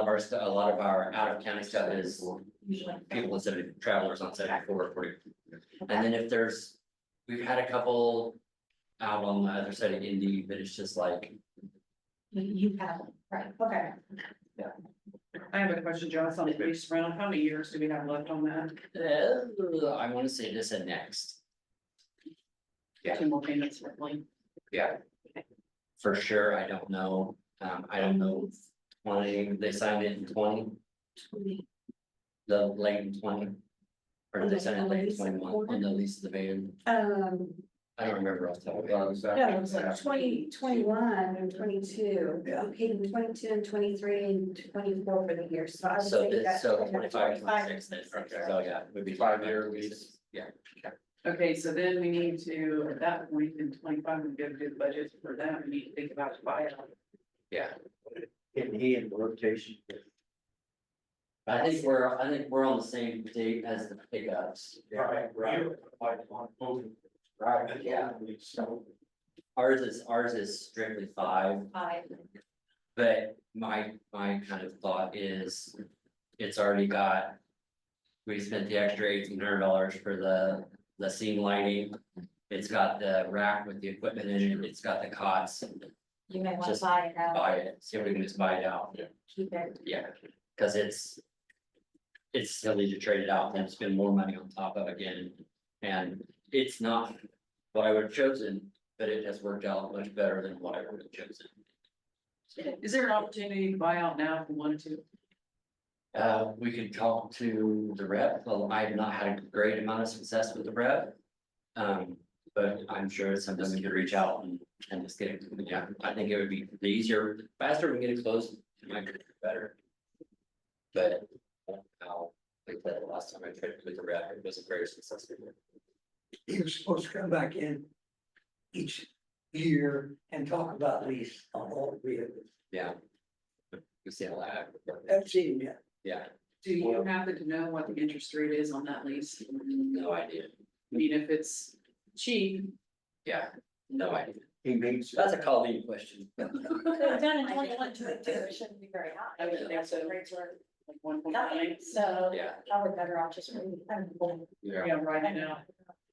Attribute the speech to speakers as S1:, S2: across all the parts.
S1: of our, stu- a lot of our out of county stuff is people that are travelers on seventy four or forty. And then if there's, we've had a couple out on the other side of Indy, but it's just like,
S2: You have, right, okay.
S3: I have a question, Jonas, on the lease rental, how many years do we have left on that?
S1: uh, I wanna say this and next. Yeah.
S3: Two more payments, certainly.
S1: For sure, I don't know, um, I don't know, if twenty, they signed it in twenty, the late in twenty. Or did they sign it late in twenty one, on the lease of the van,
S2: Um,
S1: I don't remember off the top of my
S4: Yeah,
S1: head.
S4: it was
S2: no, it was
S4: after-
S2: like
S4: after-
S2: twenty, twenty-one and twenty-two.
S4: Yeah.
S2: Okay, and twenty-two and twenty-three and twenty-four for the year, so I would
S1: So
S2: say
S1: this,
S2: that's.
S1: so
S2: kind of
S1: twenty-five, twenty-six,
S2: 25,
S1: then,
S2: 26,
S1: so yeah, would be.
S4: Five-year lease.
S1: Yeah,
S3: Okay, so then we need to, at that point in twenty-five, we gotta do the budget for that, we need to think about buyout.
S1: yeah,
S5: Getting he in the rotation.
S1: I think we're, I think we're on the same date as the pickups,
S5: Right, Right,
S1: yeah. ours is, ours is strictly five,
S2: Five,
S1: but my, my kind of thought is, it's already got. We spent the extra eighteen hundred dollars for the, the scene lighting, it's got the rack with the equipment in it, it's got the cots,
S2: you may want to
S1: Just
S2: buy it out,
S1: buy it, see if we can just buy it out,
S2: keep it,
S1: yeah, cause it's. It's silly to trade it out and spend more money on top of again, and it's not what I would have chosen, but it has worked out much better than what I would have chosen.
S3: Is there an opportunity to buy out now if we wanted to?
S1: Uh, we could talk to the rep, well, I have not had a great amount of success with the rep. Um, but I'm sure it's something we could reach out and, and just get it, yeah, I think it would be the easier, faster we get it closed, it might be better. But, uh, I'll, like that last time I tried with the rep, it wasn't very successful.
S5: He was supposed to come back in each year and talk about lease on all three of them.
S1: Yeah. You see how that,
S5: I've seen him yet.
S1: yeah,
S3: Do you happen to know what the interest rate is on that lease?
S1: no idea,
S3: I mean, if it's cheap,
S1: yeah, no idea,
S5: He makes.
S1: that's a Colleen question.
S2: done in 21, 22, it shouldn't be very high.
S3: I would think so.
S2: Rates were
S3: like one point nine.
S2: nine, so
S1: Yeah,
S2: probably better off just reading. I'm going-
S1: yeah.
S3: Yeah, right now.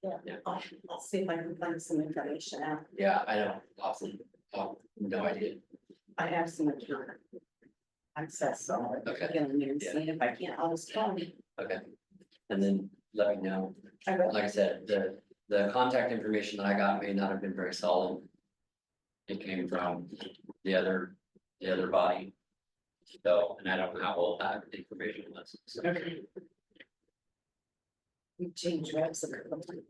S2: Yeah, I'll, I'll see if I can find some information out.
S1: Yeah, I don't, awesome, oh, no idea,
S2: I have some account. Access, so I'm
S1: Okay.
S2: going there and
S1: Yeah.
S2: see if I can't, I'll just call you.
S1: okay. And then let me know,
S2: I will.
S1: like I said, the, the contact information that I got may not have been very solid. It came from the other, the other body. So, and I don't know how old that information was, so.
S3: Okay.
S2: We change reps a couple of times.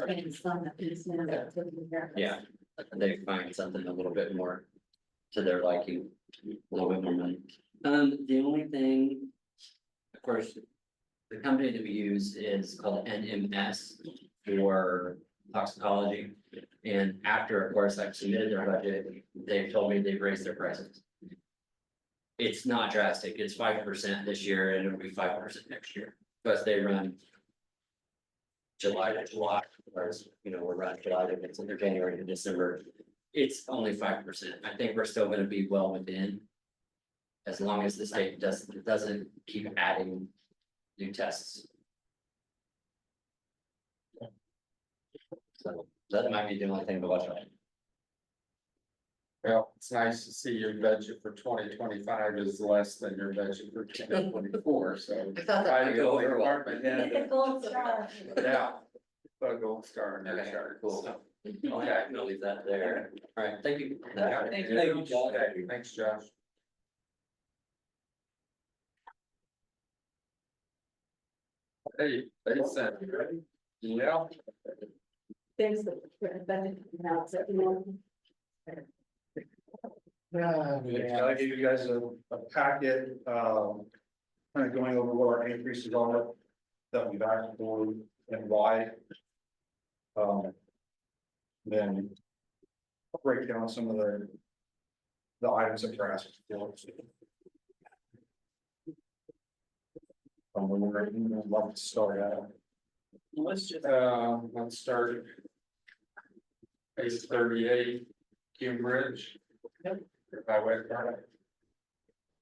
S2: And it's on the business, that's what we have.
S1: Yeah, they find something a little bit more to their liking, a little bit more money. Um, the only thing, of course, the company that we use is called NMS for toxicology. And after, of course, I've submitted their budget, they've told me they've raised their prices. It's not drastic, it's five percent this year and it'll be five percent next year, because they run July to July, whereas, you know, we're running July to it's under January to December. It's only five percent. I think we're still gonna be well within. As long as the state doesn't, doesn't keep adding new tests. So that might be the only thing to watch out.
S4: Well, it's nice to see your budget for twenty twenty-five is less than your budget for twenty twenty-four, so.
S1: I thought
S4: I go
S1: well.
S4: over department
S2: Get the
S4: head,
S2: gold star.
S4: yeah. Put a gold star in their
S1: Okay,
S4: chart,
S1: cool.
S4: so.
S1: Okay, I'm gonna leave that there. All right, thank you.
S3: Thank you. Thank you, Josh.
S4: Okay, Thanks, Josh. Hey, they sent, yeah.
S2: There's the, the, now, so, you know.
S6: Yeah, yeah, I gave you guys a, a packet, um, kind of going over what our increases are that we've asked for and why. Um, then break down some of the, the items that we're asking for. Um, we're, we're, I'd love to start out.
S3: Let's just,
S4: Uh, let's start. Page thirty-eight, Cambridge. Highway department.